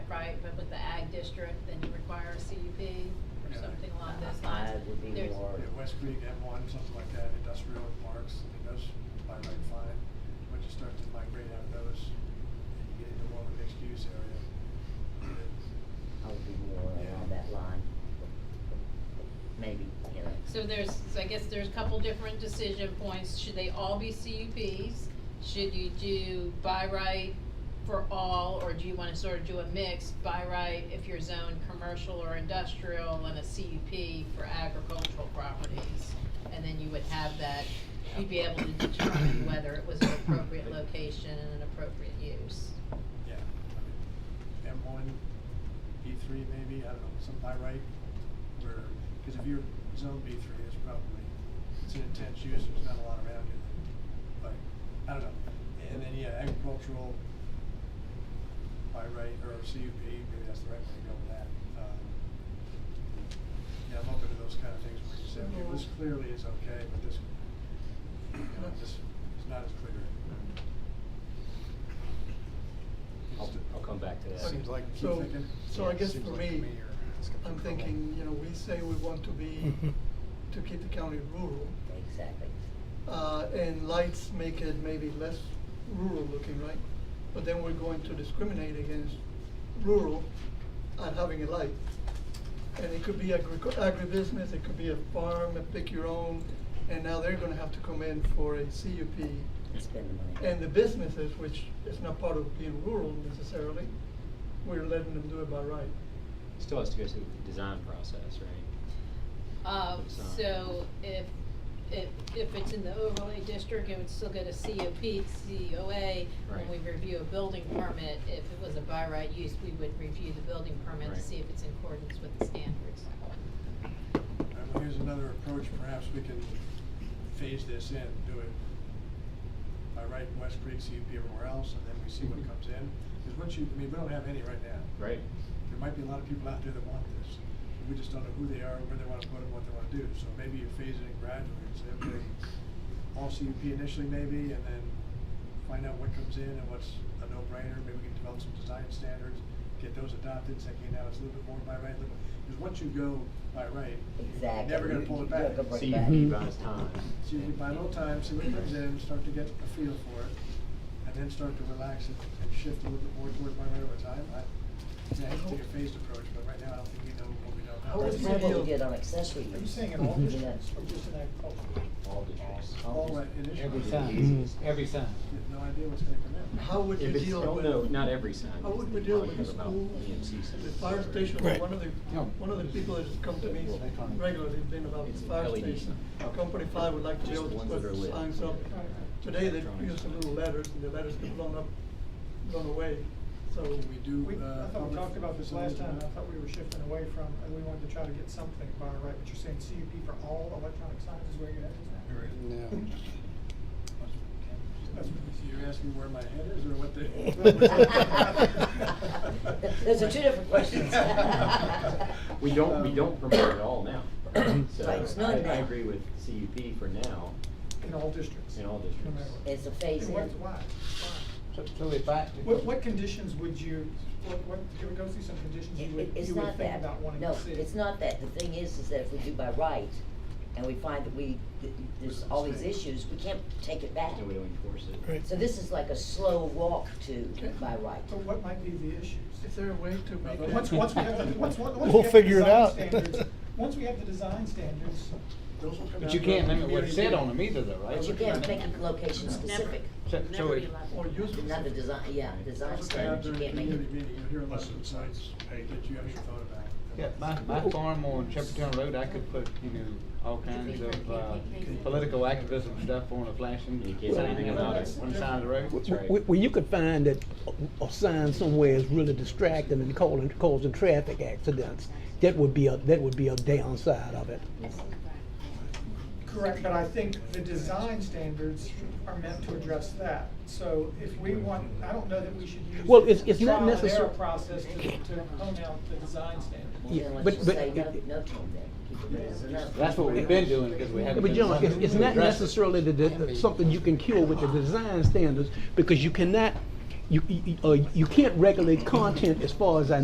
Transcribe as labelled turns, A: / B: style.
A: district, then you require a CUP or
B: Yeah.
A: something along those lines.
C: I Uh, would be
A: There's-
C: more,
B: Yeah, West Creek, M one, something like that, industrial parks, I think those by right fine. Once you start to migrate out of those, and you get into more of a mixed use area.
C: I would be more along that line. Maybe, you know.
A: So there's, so I guess there's a couple different decision points, should they all be CUPs? Should you do by right for all, or do you wanna sort of do a mix, by right if you're zoned commercial or industrial, and a CUP for agricultural properties? And then you would have that, you'd be able to determine whether it was an appropriate location and an appropriate use.
B: Yeah, I mean, M one, B three maybe, I don't know, some by right, where, cause if you're zone B three, it's probably, it's an intense use, there's not a lot around it. But, I don't know, and then, yeah, agricultural by right, or CUP, maybe that's the right way to go with that. Um, Yeah, I'm open to those kind of things where you say, okay, this clearly is okay, but this, you know, this is not as clear.
D: I'll, I'll come back to that.
B: Seems like, keep
E: So-
B: thinking.
E: so I
B: Yeah,
E: guess
B: seems
E: for
B: like to
E: me,
B: or it's gonna
E: I'm
B: come
E: thinking,
B: back.
E: you know, we say we want to be, to keep the county rural,
C: Exactly.
E: uh, and lights make it maybe less rural looking, right? But then we're going to discriminate against rural on having a light. And it could be agri- agribusiness, it could be a farm, a pick your own, and now they're gonna have to come in for a CUP
C: And spend the money.
E: and the businesses, which is not part of being rural necessarily, we're letting them do it by right.
D: Still has to go through the design process, right?
A: Um,
D: So-
A: so if, if, if it's in the overlay district, it would still go to COP, COA. When
D: Right.
A: we review a building permit, if it was a by right use, we would review the building permit to
D: Right.
A: see if it's in accordance with the standards.
B: All right, well, here's another approach, perhaps we can phase this in, do it by right in West Creek, see everywhere else, and then we see what comes in. Because once you, I mean, we don't have any right now.
D: Right.
B: There might be a lot of people out there that want this. We just don't know who they are, where they wanna put it, what they wanna do. So maybe you phase it in gradually and say, okay, all CUP initially maybe, and then find out what comes in and what's a no-brainer. Maybe we can develop some design standards, get those adopted, say, okay, now it's a little bit more by right, a little, because once you go by right, you're
C: Exactly.
B: never gonna
C: You-
B: pull
C: you
B: it back.
C: gotta go
B: So
C: back.
D: See, you buys time.
B: you can buy a little time, see what comes in, start to get a feel for it, and then start to relax and, and shift a little bit more toward by right over time. I, I hate to take a phased approach, but right now I don't think we know what we don't know.
E: How
C: That's
E: is
C: kind of what
E: your-
C: we did on accessory use.
F: Are you Mm-hmm. saying in all districts
C: Yeah.
F: or just in agriculture?
D: All districts.
B: All right, initially.
G: Every
B: you
G: time, every time.
B: have no idea what's gonna come in.
E: How would you
D: If it's,
E: deal
D: oh,
E: with?
D: no, not every sign.
E: How would we
D: They
E: deal
D: probably
E: with the
D: have about
E: school,
D: EMC signs.
E: the fire station,
H: Right.
E: one of the,
G: No.
E: one of the people that's come to me regularly, has been about the
D: It's
E: fire
D: LED.
E: station. Company Five would like to be
D: Just
E: able to
D: the ones that are
E: put
D: lit.
E: signs up. Today, they used some little letters, and the letters get blown up, blown away, so.
B: Can we do,
F: We,
B: uh?
F: I thought we
B: public-
F: talked about this last time, and I thought we were shifting away from, and we wanted to try to get something by right, but you're saying CUP for all electronic signs is where you're at, isn't it?
B: That's what you- You're asking where my head is or what the?
C: Those are two different questions.
D: We don't,
B: Um,
E: Um,
D: we don't promote it all now. So
C: Right, it's
D: I,
C: not
D: I
C: now.
D: agree with CUP for now
F: In all districts.
D: in all districts.
C: It's a
F: And
C: phase in.
F: what, why?
G: So- So if I.
F: What, what conditions would you, what, what, can we go through some conditions you
C: It-
F: would,
C: it- It's
F: you would
C: not
F: think
C: that,
F: about wanting
C: no,
F: to see?
C: it's not that. The thing is, is that if we do by right and we find that we, th- there's all these issues, we can't take it back.
D: And we don't enforce it.
H: Right.
C: So this is like a slow walk to
E: Okay.
C: by right.
F: But what might be the issues?
E: Is there a way to make
B: Uh,
F: But
E: that?
F: Once, once we have, the- once, once once we
H: We'll
F: have the
H: figure it
F: design
H: out.
F: standards, once we have the design standards,
B: Those will come
G: But you
B: out
G: can't
B: of the
G: limit what it said
B: community.
G: on them either though, right?
C: But you can't make it location specific.
G: So- So it,
E: Or use.
C: Not the design, yeah, design
B: Those will come out
C: standards, you
B: during
C: can't make
B: community
C: it.
B: meeting, you'll hear a lot of insights that you haven't thought about.
G: yeah, my, my farm on Shepherdtown Road, I could put, you know, all kinds of, uh, political activism stuff on a flashing
D: You
G: sign
D: can't say anything about it.
G: on the side of the road.
D: That's right.
H: Well, you could find that a- a sign somewhere is really distracting and causing, causing traffic accidents. That would be a, that would be a downside of it.
F: Correct, but I think the design standards are meant to address that. So if we want, I don't know that we should use.
H: Well, it's- it's not
F: trial and error
H: necessar-
F: Process to, to hone out the design standards.
H: Yeah,
C: Then let's
H: but-
C: just
H: but-
C: say no, no tone then. Keep it as a no.
G: That's what we've been doing because we haven't
H: But
G: been.
H: John, it's, it's not
G: addressing it.
H: necessarily the, the, something you can cure with the design standards, because you cannot, you, you, uh, you can't regulate content as far as I